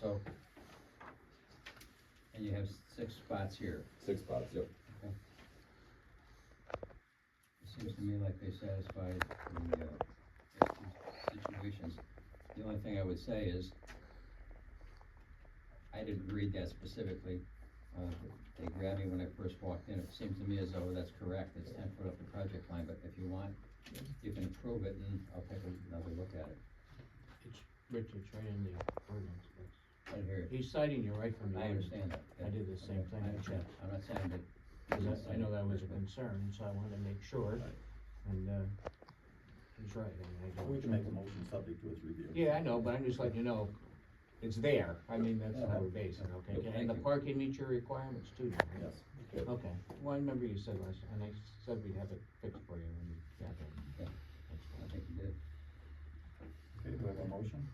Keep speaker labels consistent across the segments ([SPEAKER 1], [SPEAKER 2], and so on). [SPEAKER 1] so. And you have six spots here.
[SPEAKER 2] Six spots, yep.
[SPEAKER 1] It seems to me like they satisfy the, uh, the two situations. The only thing I would say is, I didn't read that specifically. Uh, They grabbed me when I first walked in. It seems to me as though that's correct. It's ten foot up the project line, but if you want, you can approve it and I'll take another look at it.
[SPEAKER 3] It's, Rich, it's right in the ordinance books.
[SPEAKER 1] I didn't hear it.
[SPEAKER 3] He's citing you right from the
[SPEAKER 1] I
[SPEAKER 3] ordinance.
[SPEAKER 1] understand that.
[SPEAKER 3] I did the same thing.
[SPEAKER 1] I understand. I'm not saying that.
[SPEAKER 3] Cause I- I know that was a concern, so I wanted to make sure,
[SPEAKER 4] Right.
[SPEAKER 3] and, uh, he's right, I mean, I don't.
[SPEAKER 4] We can make a motion subject to its review.
[SPEAKER 3] Yeah, I know, but I'm just letting you know, it's there, I mean, that's how we're basing, okay,
[SPEAKER 1] Thank
[SPEAKER 3] and the
[SPEAKER 1] you.
[SPEAKER 3] parking meets your requirements too, then, right?
[SPEAKER 4] Yes.
[SPEAKER 3] Okay, well, I remember you said last, and I said we'd have it fixed for you when you got there.
[SPEAKER 1] Yeah. I think you did.
[SPEAKER 4] Okay, do I have a motion?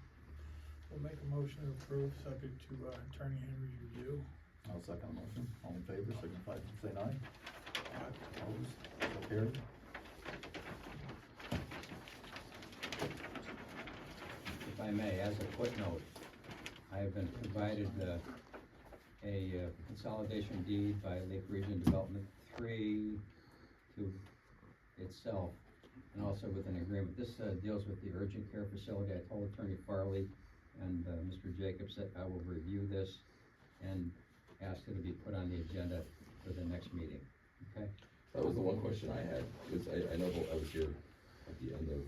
[SPEAKER 5] We'll make a motion to approve, subject to uh, Attorney Henry's review.
[SPEAKER 4] I'll second the motion. All in favor, signify by saying aye. Opposed, so carried.
[SPEAKER 1] if I may, as a footnote, I have been provided uh, a uh, consolidation deed by Lake Region Development Three to itself, and also with an agreement. This uh, deals with the urgent care facility. I told Attorney Farley and uh, Mr. Jacobs that I will review this and ask it to be put on the agenda for the next meeting, okay?
[SPEAKER 2] That was the one question I had, because I, I know that I was here at the end of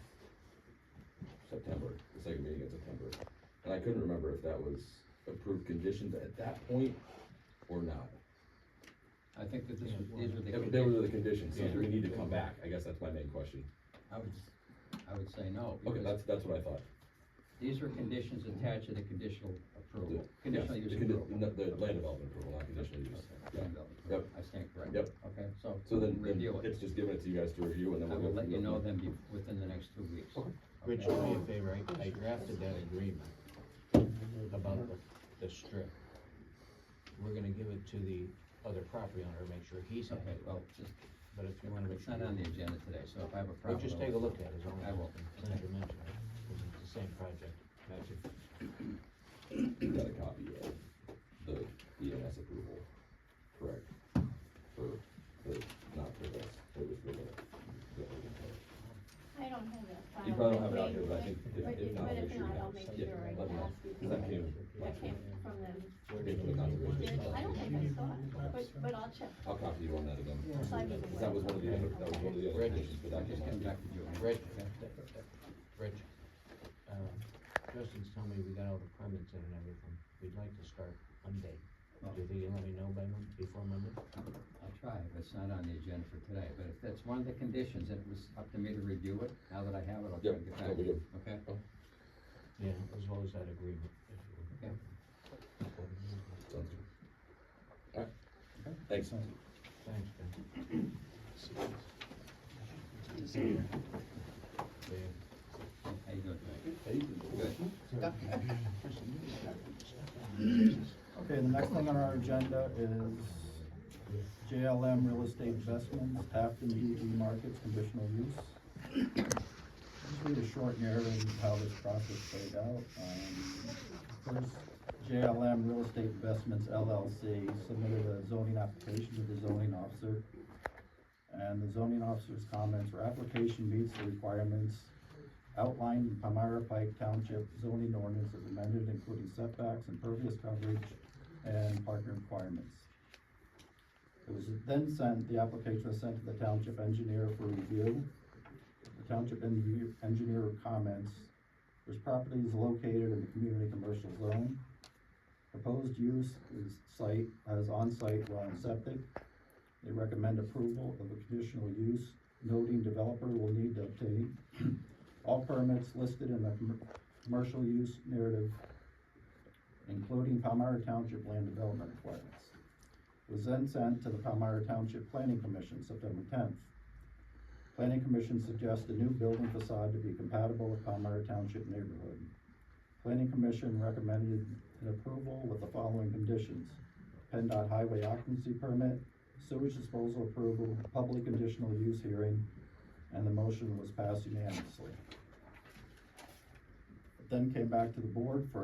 [SPEAKER 2] September, the second meeting in September. And I couldn't remember if that was approved conditions at that point or not.
[SPEAKER 1] I think that this was, these were the.
[SPEAKER 2] They were the conditions, so
[SPEAKER 1] Yeah.
[SPEAKER 2] do we need to come back, I guess that's my main question.
[SPEAKER 1] I would, I would say no.
[SPEAKER 2] Okay,
[SPEAKER 1] because-
[SPEAKER 2] that's, that's what I thought.
[SPEAKER 1] These are conditions attached to the conditional
[SPEAKER 2] The-
[SPEAKER 1] approval,
[SPEAKER 2] yes,
[SPEAKER 1] conditional use
[SPEAKER 2] the condi-
[SPEAKER 1] approval.
[SPEAKER 2] no, The land development approval, not conditional
[SPEAKER 1] Okay,
[SPEAKER 2] use. Yeah.
[SPEAKER 1] conditional approval. I stand corrected.
[SPEAKER 2] Yep.
[SPEAKER 1] Okay, so
[SPEAKER 2] So then, then
[SPEAKER 1] review it.
[SPEAKER 2] it's just given it to you guys to review and then
[SPEAKER 1] I
[SPEAKER 2] we'll.
[SPEAKER 1] will
[SPEAKER 2] go
[SPEAKER 1] let
[SPEAKER 2] from
[SPEAKER 1] you
[SPEAKER 2] there.
[SPEAKER 1] know then be, within the next two weeks.
[SPEAKER 2] Okay.
[SPEAKER 3] Rich,
[SPEAKER 1] Okay?
[SPEAKER 3] do me a favor, I, I drafted that agreement about the, the strip. We're gonna give it to the other property owner, make sure he's
[SPEAKER 1] Okay,
[SPEAKER 3] happy,
[SPEAKER 1] well, just,
[SPEAKER 3] but if you wanna make
[SPEAKER 1] it's
[SPEAKER 3] sure.
[SPEAKER 1] not on the agenda today, so if I have a
[SPEAKER 3] Well,
[SPEAKER 1] problem.
[SPEAKER 3] just take a look at it, as long as.
[SPEAKER 1] I will.
[SPEAKER 3] Since you mentioned it, 'cause it's the same project.
[SPEAKER 2] You got a copy of the EMS approval, correct? For the, not for this, it was for the, the urgent care.
[SPEAKER 6] I don't have that file.
[SPEAKER 2] You probably don't have it out
[SPEAKER 6] with
[SPEAKER 2] here, but I
[SPEAKER 6] me,
[SPEAKER 2] think if,
[SPEAKER 6] But
[SPEAKER 2] if not, we
[SPEAKER 6] if but if
[SPEAKER 2] should
[SPEAKER 6] not,
[SPEAKER 2] have.
[SPEAKER 6] I'll make
[SPEAKER 2] yeah,
[SPEAKER 6] sure I
[SPEAKER 2] let me know.
[SPEAKER 6] ask you.
[SPEAKER 2] 'Cause that came
[SPEAKER 6] I
[SPEAKER 2] last week.
[SPEAKER 6] came from them.
[SPEAKER 2] Came from the conservation.
[SPEAKER 6] Did-
[SPEAKER 2] Commission.
[SPEAKER 6] I don't think I saw it, but, but I'll check.
[SPEAKER 2] I'll copy you on that again.
[SPEAKER 3] Yeah.
[SPEAKER 6] Side of the
[SPEAKER 2] 'Cause that was one of the other, that was one of the other
[SPEAKER 3] Right.
[SPEAKER 2] conditions, but
[SPEAKER 1] I'll
[SPEAKER 2] that
[SPEAKER 1] just
[SPEAKER 2] came
[SPEAKER 1] come back
[SPEAKER 2] last
[SPEAKER 1] to you.
[SPEAKER 3] Rich,
[SPEAKER 1] Okay?
[SPEAKER 3] Rich, uh, Justin's telling me we got all the permits in and everything, we'd like to start Monday. Do you think you let me know by Monday, before Monday?
[SPEAKER 1] I'll try, but it's not on the agenda for today, but if that's one of the conditions, it was up to me to review it. Now that I have it, I'll try to
[SPEAKER 2] Yep,
[SPEAKER 1] get back
[SPEAKER 2] that'll be
[SPEAKER 1] to you, okay?
[SPEAKER 3] Yeah, as well as that agreement. if you would.
[SPEAKER 2] week. Sounds good. Alright, thanks.
[SPEAKER 3] Thanks, Ben. Yeah.
[SPEAKER 1] How you doing tonight?
[SPEAKER 4] Okay, the next thing on our agenda is JLM Real Estate Investments, Afton DD E Markets, conditional use. Just read a short narrative of how this process played out. Um, First, JLM Real Estate Investments LLC submitted a zoning application to the zoning officer. And the zoning officer's comments were application meets the requirements outlined in Palmyra Pike Township zoning ordinance as amended, including setbacks, impervious coverage, and parking requirements. It was then sent, the application was sent to the township engineer for review. The township engineer, engineer comments, this property is located in the community commercial zone. Proposed use is site, as on-site well and septic. They recommend approval of a conditional use, noting developer will need to obtain all permits listed in the com- commercial use narrative, including Palmyra Township land development requirements, was then sent to the Palmyra Township Planning Commission September tenth. Planning Commission suggests a new building facade to be compatible with Palmyra Township neighborhood. Planning Commission recommended an approval with the following conditions. PennDOT highway occupancy permit, sewage disposal approval, public conditional use hearing, and the motion was passed unanimously. It Then came back to the board for